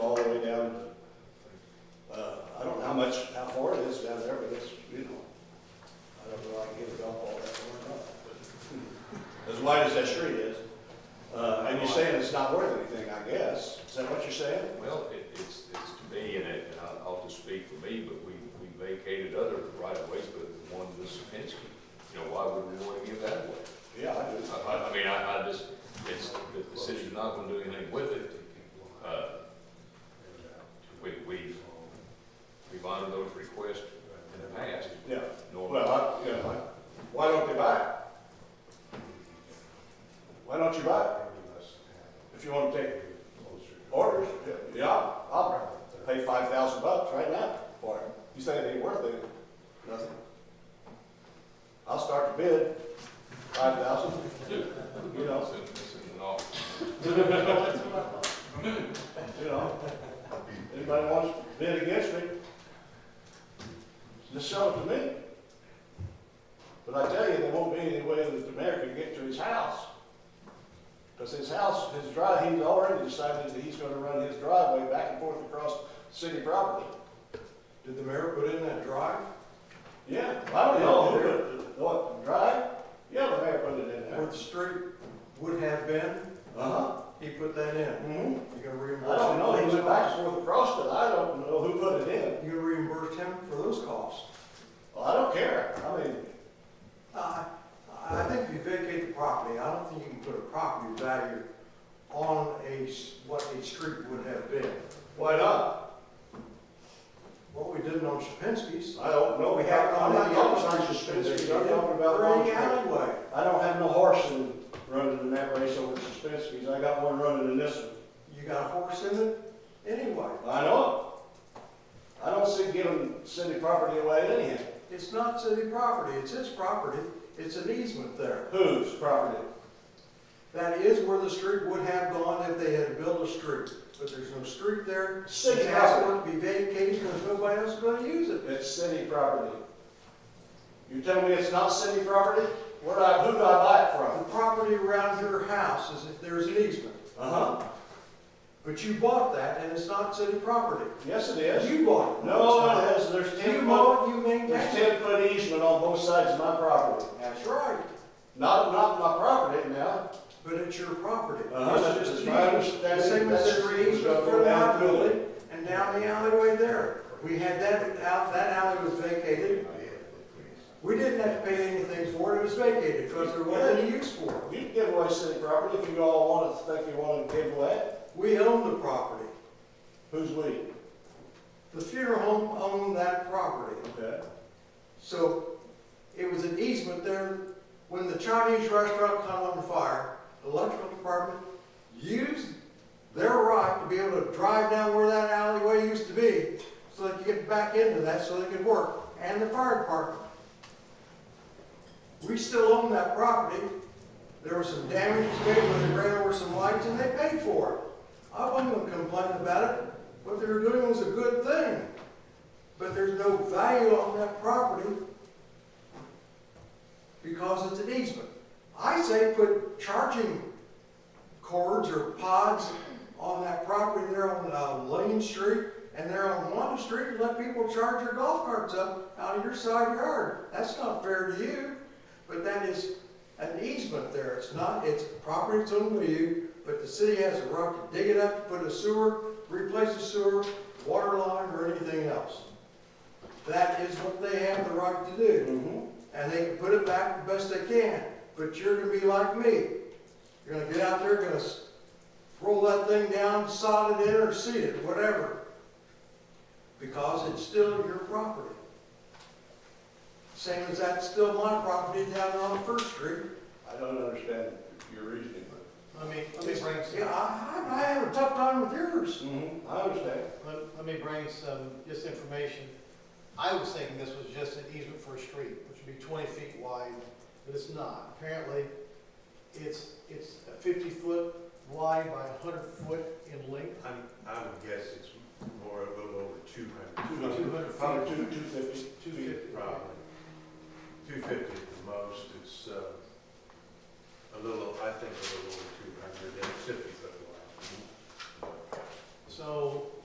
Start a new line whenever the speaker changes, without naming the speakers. Uh,
much,
How far it is down there, but it's, you know, I don't know, I can give a golf ball back or not. As wide as that street is. Uh, and you're saying it's not worth anything, I guess. Is that what you're saying?
Well, it, it's, it's to me, and it, and I'll, I'll just speak for me, but we, we vacated other right of ways, but the one this Penske, you know, why would we want to give that away?
Yeah, I do.
I, I, I mean, I, I just, it's, the, the city's not gonna do anything with it. Uh, we, we've, we've honored those requests in the past.
Yeah,
Normally,
well, I, you know, I- why don't they buy it? Why don't you buy it? If you want to take orders, yeah, I'll pay five thousand bucks right now for it. You say it ain't worth it, nothing. I'll start the bid, five thousand, you know,
it's in, it's in the law.
you know. Anybody wants to bid against me, just sell it to me. But I tell you, there won't be any way that the mayor can get to his house. Because his house, his drive, he's already decided that he's gonna run his driveway back and forth across city property.
Did the mayor put in that drive?
Yeah, I don't know who put it, what, drive? Yeah, the mayor put it in
Where
there.
the street would have been,
Uh-huh.
he put that in.
Mm-hmm.
You gonna reimburse?
I don't know,
him
he
for
went
those
back and forth across it, I don't know who put it in.
costs? You gonna reimburse him for those costs?
Well, I don't care, I mean,
I, I think if you vacate the property, I don't think you can put a property value on a, s- what a street would have been.
why not?
What we did on Shapinsky's.
I don't know, we have, I'm not talking about Suspensky's, I'm talking about Long
Any
Street.
alleyway.
I don't have no horse in running in that race over Suspensky's, I got one running in this one.
You got a horse in it anyway.
I know. I don't see giving city property away anyhow.
It's not city property, it's his property, it's an easement there.
Whose property?
That is where the street would have gone if they had built a street, but there's no street there.
City
It has
property.
to be vacated because nobody else is gonna use it.
It's city property. You tell me it's not city property? Where do I, who do I buy it
The
from?
property around your house is if there's an easement,
Uh-huh.
but you bought that and it's not city property.
Yes, it is.
You bought it.
No, it has, there's
You
ten foot,
bought it, you
there's
maintained it.
ten foot easement on both sides of my property.
That's right,
Not, not my property now.
but it's your property.
Uh-huh,
It's
that's
just
just
an
my
easement. The same
understanding.
as
That's
there's an
just-
easement
go
for an
down the building.
outbuilding and down the alleyway there. We had that out, that alley was vacated. We didn't have to pay anything for it, it was vacated, because there wasn't any use for it.
You can give away city property if you all want to, think you want to give away. it.
We owned the property.
Who's we?
The funeral home owned that property.
Okay.
So it was an easement there. When the Chinese restaurant caught on fire, the electrical department used their right to be able to drive down where that alleyway used to be so they could get back into that so they could work, and the fire department. We still own that property. There was some damage made when they ran over some lights and they paid for it. I wasn't gonna complain about it. What they were doing was a good thing. But there's no value on that property because it's an easement. I say put charging cords or pods on that property there on uh, Lane Street and there on Wanda Street and let people charge their golf carts up out of your side yard. That's not fair to you, but that is an easement there. It's not, it's property that's owned by you, but the city has a right to dig it up, put a sewer, replace the sewer, water line or anything else. That is what they have the right to do
Mm-hmm.
and they can put it back the best they can. But you're gonna be like me. You're gonna get out there, gonna s- roll that thing down, sod it in or seed it, whatever. Because it's still your property. Same as that's still my property down there on First Street.
I don't understand your reasoning, but.
Let me, let me
It's-
bring
Yeah, I,
some,
I I have a tough time with yours.
Mm-hmm. I understand.
let, let me bring some, just information. I was thinking this was just an easement for a street, which would be twenty feet wide, but it's not. Apparently, it's, it's a fifty foot wide by a hundred foot in length.
I'm, I would guess it's more, a little over two hundred,
Two
200 feet.
Probably two, two fifty.
Two fifty.
probably. Two fifty at the most, uh,